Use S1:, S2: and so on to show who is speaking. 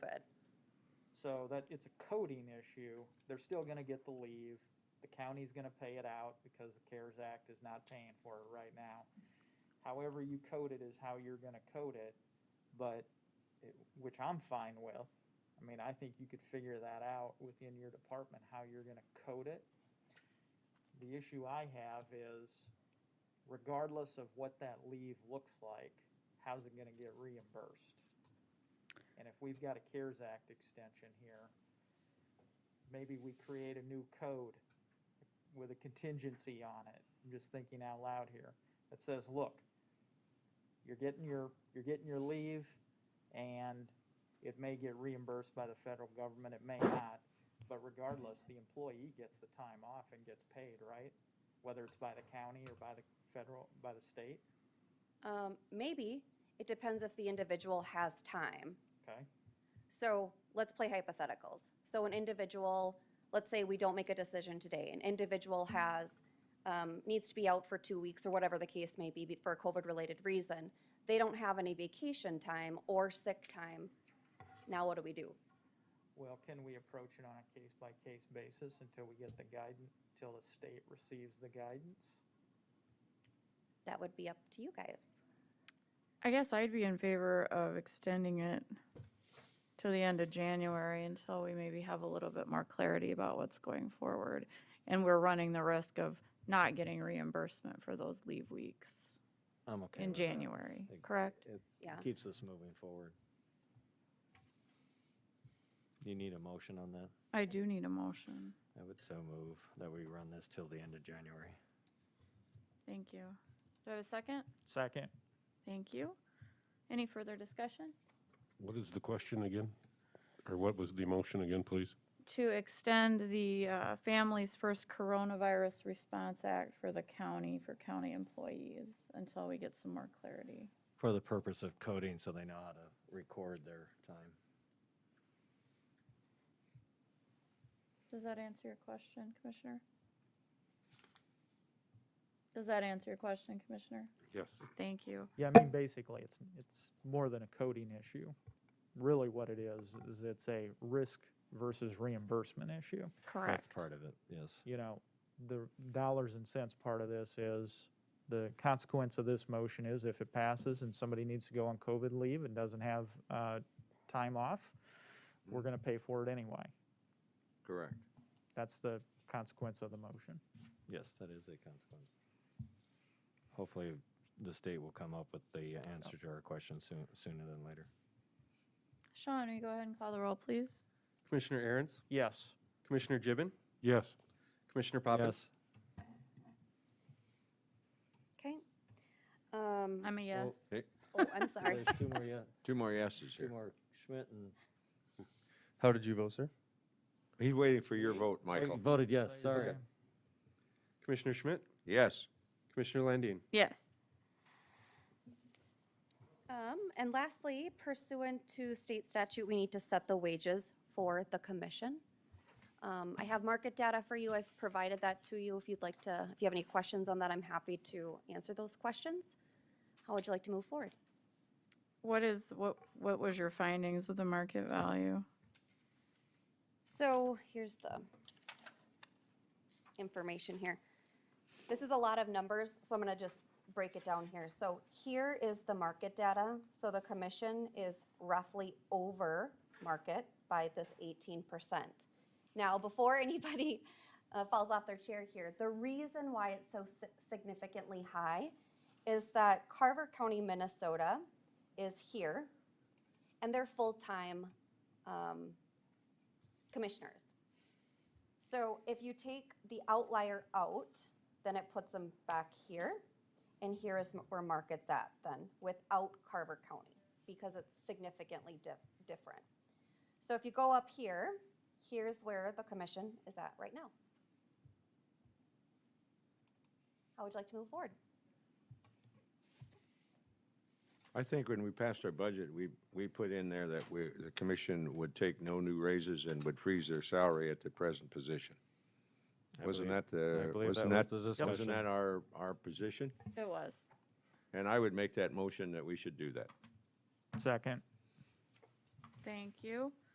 S1: So that, it's a coding issue. They're still gonna get the leave. The county's gonna pay it out because the CARES Act is not paying for it right now. However you code it is how you're gonna code it, but, it- which I'm fine with. I mean, I think you could figure that out within your department, how you're gonna code it. The issue I have is regardless of what that leave looks like, how's it gonna get reimbursed? And if we've got a CARES Act extension here, maybe we create a new code with a contingency on it. I'm just thinking out loud here. That says, look, you're getting your, you're getting your leave and it may get reimbursed by the federal government, it may not. But regardless, the employee gets the time off and gets paid, right? Whether it's by the county or by the federal, by the state,
S2: Um, Maybe, it depends if the individual has time.
S1: okay?
S2: So let's play hypotheticals. So an individual, let's say we don't make a decision today, an individual has, um, needs to be out for two weeks or whatever the case may be be- for a COVID-related reason. They don't have any vacation time or sick time. Now what do we do?
S1: Well, can we approach it on a case-by-case basis until we get the guidance, till the state receives the guidance?
S2: That would be up to you guys.
S3: I guess I'd be in favor of extending it to the end of January until we maybe have a little bit more clarity about what's going forward. And we're running the risk of not getting reimbursement for those leave weeks
S4: I'm okay.
S3: in
S4: with that.
S3: January,
S4: It-
S3: correct?
S4: It
S2: Yeah.
S4: keeps us moving forward. You need a motion on that?
S3: I do need a motion.
S4: I would so move that we run this till the end of January.
S3: Thank you. Do I have a second?
S1: Second.
S3: Thank you. Any further discussion?
S5: What is the question again? Or what was the motion again, please?
S3: To extend the uh, Families First Coronavirus Response Act for the county, for county employees, until we get some more clarity.
S4: For the purpose of coding, so they know how to record their time.
S3: Does that answer your question, Commissioner? Does that answer your question, Commissioner?
S5: Yes.
S3: Thank you.
S1: Yeah, I mean, basically, it's, it's more than a coding issue. Really what it is, is it's a risk versus reimbursement issue.
S4: That's part of it, yes.
S1: You know, the dollars and cents part of this is, the consequence of this motion is if it passes and somebody needs to go on COVID leave and doesn't have, uh, time off, we're gonna pay for it anyway.
S4: Correct.
S1: That's the consequence of the motion.
S4: Yes, that is a consequence. Hopefully, the state will come up with the answer to our question soon, sooner than later.
S3: Sean, will you go ahead and call the roll, please?
S6: Commissioner Aaron's,
S1: Yes.
S6: Commissioner Gibbon,
S5: Yes.
S6: Commissioner Poppins.
S4: Yes,
S2: Okay? Um,
S3: I'm a yes.
S2: Oh, I'm sorry.
S4: there's two more yet,
S6: Two more yeses
S4: two more, Schmidt and.
S6: How did you vote, sir?
S7: He's waiting for your vote,
S4: I
S7: Michael.
S4: Oh, Voted yes, sorry.
S6: Commissioner Schmidt,
S7: Yes.
S6: Commissioner Landine.
S3: Yes.
S2: Um, And lastly, pursuant to state statute, we need to set the wages for the commission. Um, I have market data for you. I've provided that to you. If you'd like to, if you have any questions on that, I'm happy to answer those questions. How would you like to move forward?
S3: What is, what, what was your findings with the market value?
S2: So here's the information here. This is a lot of numbers, so I'm going to just break it down here. So here is the market data. So the commission is roughly over market by this 18%. Now, before anybody uh, falls off their chair here, the reason why it's so si- significantly high is that Carver County, Minnesota is here, and they're full-time um, commissioners. So if you take the outlier out, then it puts them back here. And here is where market's at then, without Carver County, because it's significantly di- different. So if you go up here, here's where the commission is at right now. How would you like to move forward?
S7: I think when we passed our budget, we, we put in there that we, the commission would take no new raises and would freeze their salary at the present position.
S4: I
S7: Wasn't
S4: believe-
S7: that the,
S4: I believe
S7: wasn't
S4: was
S7: that,
S4: the
S7: wasn't
S4: discussion.
S7: that our, our position?
S3: It was.
S7: And I would make that motion that we should do that.
S1: Second.
S3: Thank you.